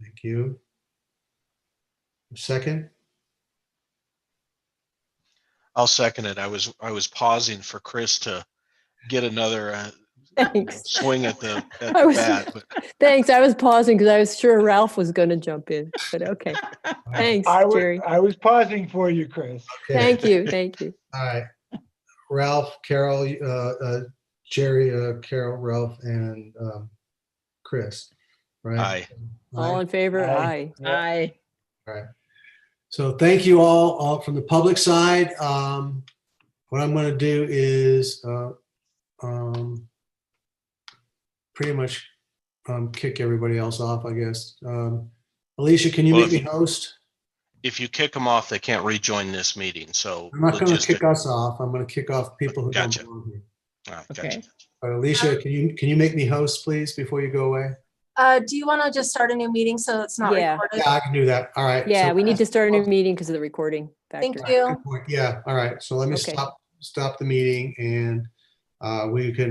Thank you. Second, I'll second it. I was, I was pausing for Chris to get another uh, Thanks. swing at the, at I the was- bat, but Thanks. I was pausing because I was sure Ralph was going to jump in, but okay. Thanks, I was, Jerry. I was pausing for you, Chris. okay, Thank you. Thank you. all right. Ralph, Carol, uh, uh, Jerry, uh, Carol, Ralph, and, um, Chris, right? aye. All in favor? Aye. Aye. Aye. So thank you all, all from the public side. Um, what I'm gonna do is, uh, um, pretty much, um, kick everybody else off, I guess. Um, Alicia, can you make me host? If you kick them off, they can't rejoin this meeting, so. I'm not gonna logistic- kick us off. I'm gonna kick off people who don't Gotcha. belong here. All right, Okay. gotcha. But Alicia, can you, can you make me host, please, before you go away? Uh, do you want to just start a new meeting so it's not Yeah. recorded? Yeah, I can do that. All right. Yeah, So- we need to start a new meeting because of the recording Thank factor. you. Good point. Yeah, all right. So let me Okay. stop, stop the meeting and, uh, we can